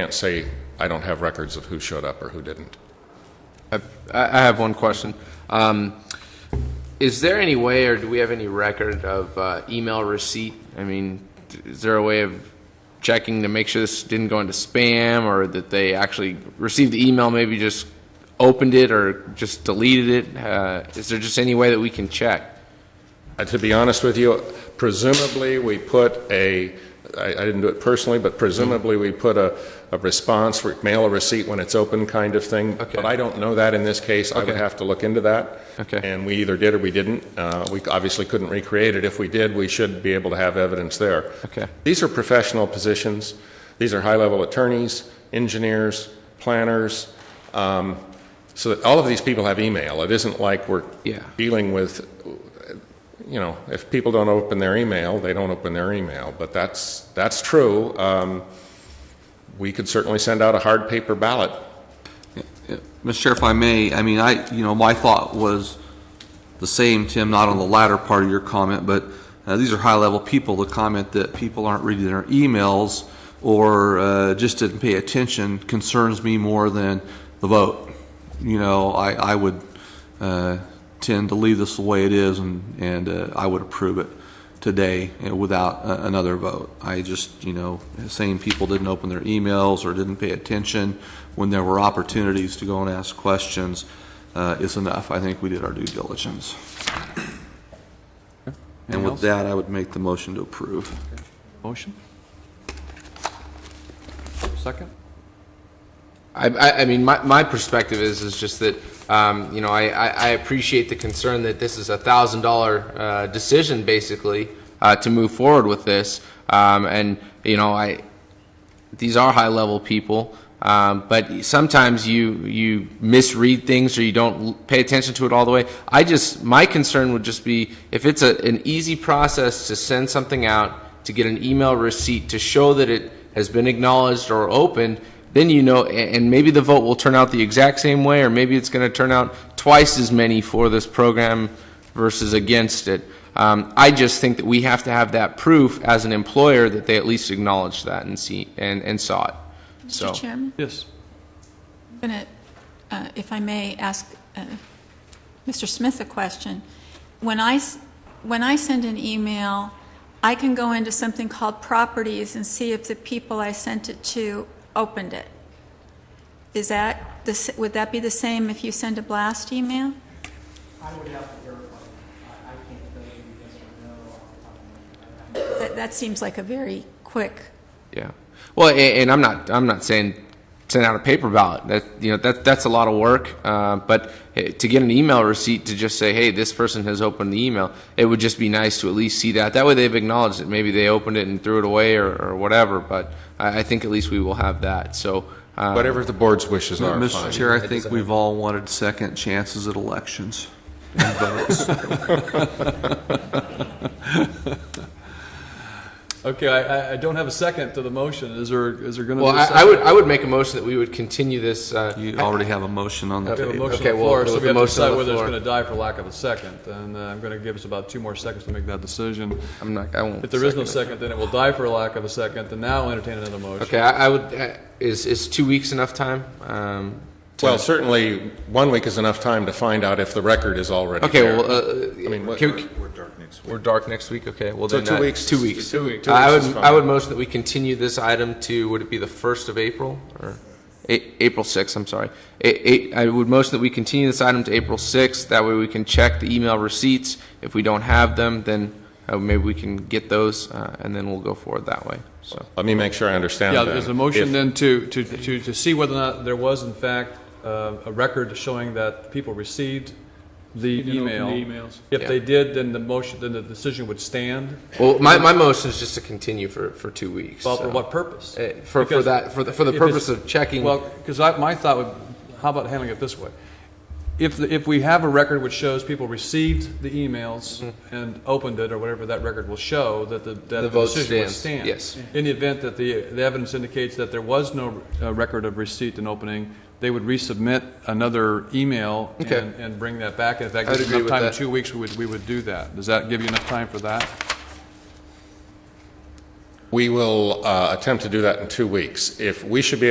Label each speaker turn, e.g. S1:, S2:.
S1: Can't say I don't have records of who showed up or who didn't.
S2: I I have one question. Um, Is there any way, or do we have any record of uh, email receipt? I mean, d- is there a way of checking to make sure this didn't go into spam, or that they actually received the email, maybe just opened it, or just deleted it? Uh, Is there just any way that we can check?
S1: Uh, To be honest with you, presumably we put a, I, I didn't do it personally, but presumably we put a, a response, re- mail a receipt when it's open kind of thing.
S2: Okay.
S1: But I don't know that in this case. I would
S2: Okay.
S1: have to look into that.
S2: Okay.
S1: And we either did or we didn't. Uh, we obviously couldn't recreate it. If we did, we should be able to have evidence there.
S2: Okay.
S1: These are professional positions. These are high-level attorneys, engineers, planners. Um, so that all of these people have email. It isn't like we're
S2: Yeah.
S1: dealing with, you know, if people don't open their email, they don't open their email. But that's that's true. Um, we could certainly send out a hard paper ballot.
S3: Mr. Chair, if I may, I mean, I, you know, my thought was the same, Tim, not on the latter part of your comment, but uh, these are high-level people. The comment that people aren't reading their emails or uh, just didn't pay attention concerns me more than the vote. You know, I, I would uh, tend to leave this the way it is, and, and uh, I would approve it today uh, without a- another vote. I just, you know, saying people didn't open their emails or didn't pay attention when there were opportunities to go and ask questions uh, is enough. I think we did our due diligence. And with that, I would make the motion to approve.
S4: Motion? Second?
S2: I, I, I mean, my, my perspective is, is just that, um, you know, I, I, I appreciate the concern that this is a thousand dollar, uh, decision basically, uh, to move forward with this. Um, and, you know, I, these are high level people. Um, but sometimes you, you misread things or you don't l- pay attention to it all the way. I just, my concern would just be if it's a, an easy process to send something out, to get an email receipt to show that it has been acknowledged or opened, then you know, a- and maybe the vote will turn out the exact same way, or maybe it's going to turn out twice as many for this program versus against it. Um, I just think that we have to have that proof as an employer that they at least acknowledged that and see and, and saw it. So,
S5: Mr. Chairman,
S4: Yes.
S5: I'm going to, if I may, ask uh, Mr. Smith a question. When I, s- when I send an email, I can go into something called properties and see if the people I sent it to opened it. Is that, the s- would that be the same if you send a blast email?
S6: I would have to verify. I, I can't tell you yes or no off the top of my head. I- I'm
S5: That, that seems like a very quick,
S2: yeah. Well, and, and I'm not I'm not saying send out a paper ballot. That you know that that's a lot of work. Uh, but eh, to get an email receipt to just say, hey, this person has opened the email, it would just be nice to at least see that. That way they've acknowledged it. Maybe they opened it and threw it away or, or whatever. But I, I think at least we will have that. So. Um,
S1: Whatever the board's wishes are.
S3: Mr.
S1: fine.
S3: Chair, I think we've all wanted second chances at elections and votes.
S4: Okay, I, I- I don't have a second to the motion. Is there, is there going to be
S2: Well,
S4: a second?
S2: I, I would, I would make a motion that we would continue this, uh,
S3: You already have a motion on the
S4: We have a
S3: table.
S4: motion on
S2: Okay,
S4: the
S2: well,
S4: floor, so
S2: with the
S4: we have
S2: motion
S4: to
S2: on
S4: decide
S2: the
S4: whether it's
S2: floor.
S4: going to die for lack of a second. And uh, I'm going to give us about two more seconds to make that decision.
S2: I'm not, I won't.
S4: If there is
S2: second
S4: no
S2: it.
S4: second, then it will die for lack of a second, and now I'll entertain another motion.
S2: Okay, I, I would, uh, is, is two weeks enough time? Um,
S1: Well, certainly, one week is enough time to find out if the record is already
S2: okay,
S1: there.
S2: well, uh,
S1: mean, what-
S2: can we- we're dark next week, okay, well
S1: So
S2: then.
S1: two
S2: that-
S1: weeks-
S2: Two weeks.
S1: two weeks- two
S2: Uh, I
S1: weeks is
S2: would, I would
S1: fine.
S2: motion that we continue this item to, would it be the first of April or? A- April sixth, I'm sorry. A- a- I would motion that we continue this item to April sixth, that way we can check the email receipts. If we don't have them, then uh, maybe we can get those, uh, and then we'll go forward that way, so.
S1: Let me make sure I understand
S4: Yeah,
S1: then.
S4: there's a motion
S1: If-
S4: then to, to, to, to see whether or not there was in fact uh, a record showing that people received the email. If they did, then the motion, then the decision would stand.
S2: Well, my, my motion is just to continue for, for two weeks.
S4: Well, for
S2: so.
S4: what purpose?
S2: Eh, for- for
S4: Because
S2: that- for the- for the
S4: if it's-
S2: purpose of checking-
S4: Well, because I, my thought would, how about handling it this way? If, the- if we have a record which shows people received the emails and opened it, or whatever that record will show, that the, that
S2: Mm-hmm. The
S4: the
S2: vote
S4: decision would
S2: stands,
S4: stand.
S2: yes.
S4: In the event that the, the evidence indicates that there was no uh, record of receipt and opening, they would resubmit another email
S2: Okay.
S4: and, and bring that back. And If that
S2: I'd
S4: gives
S2: agree
S4: enough
S2: with
S4: time, in
S2: that.
S4: two weeks, we would, we would do that. Does that give you enough time for that?
S1: We will uh, attempt to do that in two weeks. If we should be